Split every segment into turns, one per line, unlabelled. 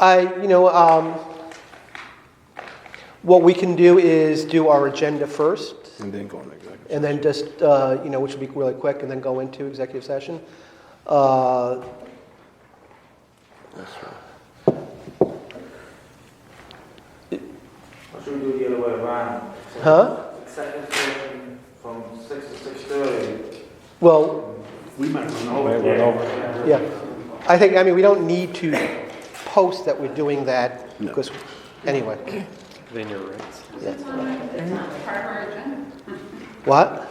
I, you know, um, what we can do is do our agenda first,
And then go on executive.
and then just, uh, you know, which will be really quick, and then go into executive session. Uh,
That's right.
Or should we do the other way around?
Huh?
Second session from six to six thirty.
Well,
We might run
over. Might run
over.
Yeah, I think, I mean, we don't need to post that we're doing that,
No.
because, anyway.
Then you're right.
It's on our- it's
Mm-hmm.
on part of our agenda.
What?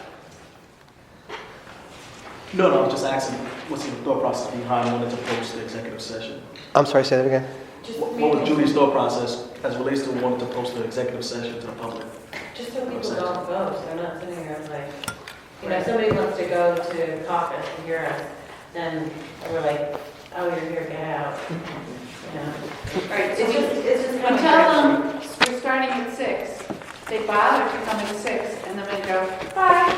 No, no, I'm just asking, what's the thought process behind wanting to post the executive session?
I'm sorry, say that again?
Just
What what was
maybe,
Julie's thought process as relates to wanting to post the executive session to the public?
Just so people don't vote, so they're not sitting here like, you know, if somebody wants to go to caucus and hear us, then we're like, oh, you're here, get out. You know?
all right, so
It's just,
we
it's just
we
kind of.
tell them we're starting at six. They bother to come at six, and then they go, bye.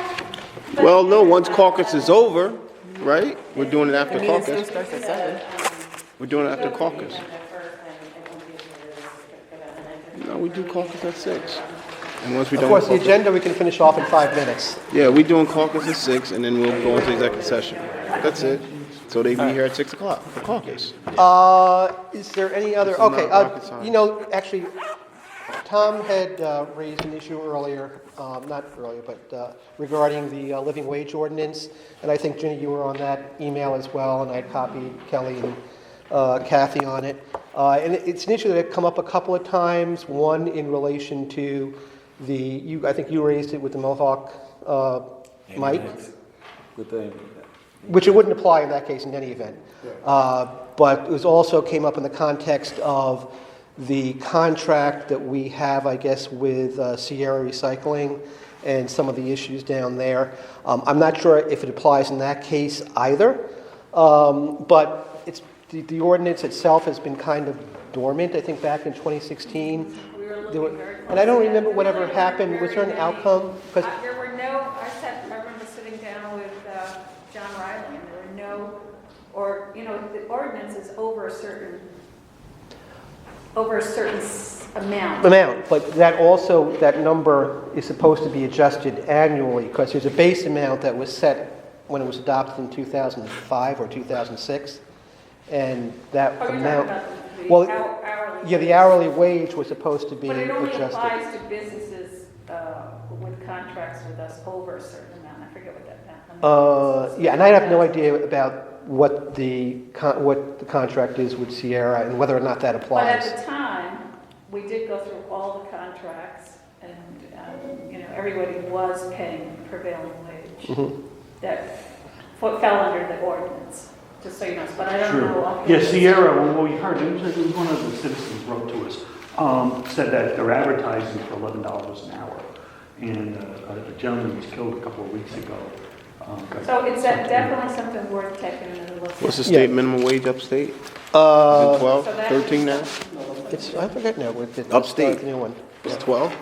But-
Well, no, once caucus is over, right? We're doing it after caucus.
starts at seven.
We're doing
um,
it after caucus. No, we do caucus at six. And once we
Of
done
course, the
with caucus,
agenda, we can finish off in five minutes.
yeah, we doing caucus at six and then we'll go into executive session. That's it. So they be here at six o'clock for caucus.
Uh, is there any other,
This is
okay,
not rocket
uh,
science.
you know, actually, Tom had uh, raised an issue earlier, um, not earlier, but uh, regarding the uh, living wage ordinance, and I think, Ginny, you were on that email as well, and I copied Kelly and uh, Kathy on it. Uh, And it- it's an issue that had come up a couple of times, one in relation to the, you, I think you raised it with the Mohawk uh, Mike. Which it wouldn't apply in that case in any event. Uh, But it was also came up in the context of the contract that we have, I guess, with uh, Sierra Recycling and some of the issues down there. Um, I'm not sure if it applies in that case either, Um, but it's, the- the ordinance itself has been kind of dormant, I think, back in 2016.
We were
There were-
looking very
And I don't
close at it.
remember
We were
whatever
looking
happened, was there an
very
outcome?
Uh,
'Cause-
There were no, I sat, I remember sitting down with uh, John Riley, and there were no, or, you know, the ordinance is over a certain, over a certain s- amount.
amount, but that also, that number is supposed to be adjusted annually, because there's a base amount that was set when it was adopted in 2005 or 2006, and that
Are you talking
amount,
about the
Well,
hou- hourly?
yeah, the hourly wage was supposed to be
But it only
adjusted.
applies to businesses uh, with contracts with us over a certain amount, I forget what that amount.
Uh,
is.
Yeah, and I have no idea about what the, con- what the contract is with Sierra and whether or not that
But
applies.
at the time, we did go through all the contracts, and, um, you know, everybody was paying prevailing wage
Mm-hmm.
that fo- fell under the ordinance, just so you know, but I don't know.
Sure. Yeah, Sierra, when we heard, it was it was one of the citizens wrote to us, um, said that they're advertising for eleven dollars an hour. And uh, a gentleman was killed a couple of weeks ago. um, got-
So it's a- definitely something worth taking another look at.
What's the
Yeah.
state minimum wage upstate? Is it
Uh,
twelve,
So that-
thirteen now?
It's, I forget now, it's it's
Upstate.
the new one.
It's twelve?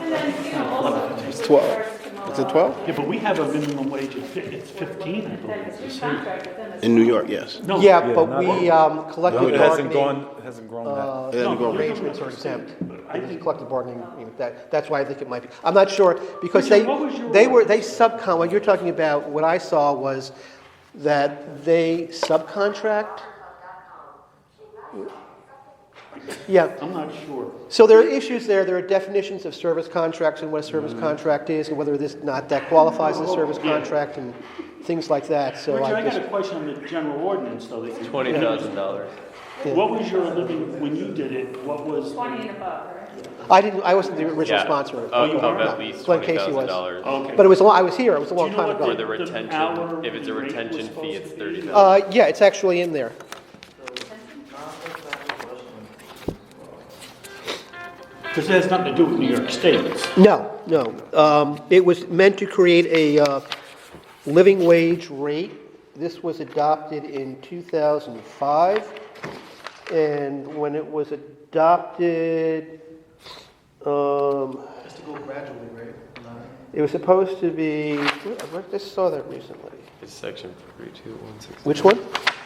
And then, you know, also.
It's twelve. Is it twelve?
Yeah, but we have a minimum wage of, fif- it's fifteen, I believe.
Then it's your contract with them.
In New York, yes.
No,
Yeah, but we um,
No,
collective
it hasn't
bargaining.
gone, it hasn't grown that.
uh,
It hasn't
No,
gone.
you're
Arrangements are exempt.
But I think-
Collective bargaining agreement, that, that's why I think it might be. I'm not sure, because they,
Richard, what was your-
they were, they subcon, what you're talking about, what I saw was that they subcontract. Yeah,
I'm not sure.
so there are issues there, there are definitions of service contracts and what a service contract is, and whether this, not that qualifies as a service
Mm-hmm. Oh, Yeah.
contract, and things like that, so
Richard,
I
I got a
just.
question on the general ordinance, though. that you-
Twenty thousand dollars.
What was your living, when you did it, what was?
Twenty and above, right?
I didn't, I wasn't the original sponsor.
Of,
Oh, you
of
were?
at
No,
least
Glenn
twenty
Casey
thousand
was. Oh.
dollars.
Okay.
But it was, a lo- I was here, it was a long
know
time
what
ago.
Or the
The
retention,
hourly
if it's a
rate was
retention fee,
supposed
it's
to be-
thirty thousand.
Uh, yeah, it's actually in there.
Because Uh, it has nothing to do with New York State.
No, no. Um, it was meant to create a, uh, living wage rate. This was adopted in two thousand and five. And when it was adopted, um,
Has to go gradually, right?
it was supposed to be, I just saw that recently.
It's section forty-two, one sixty.
Which one?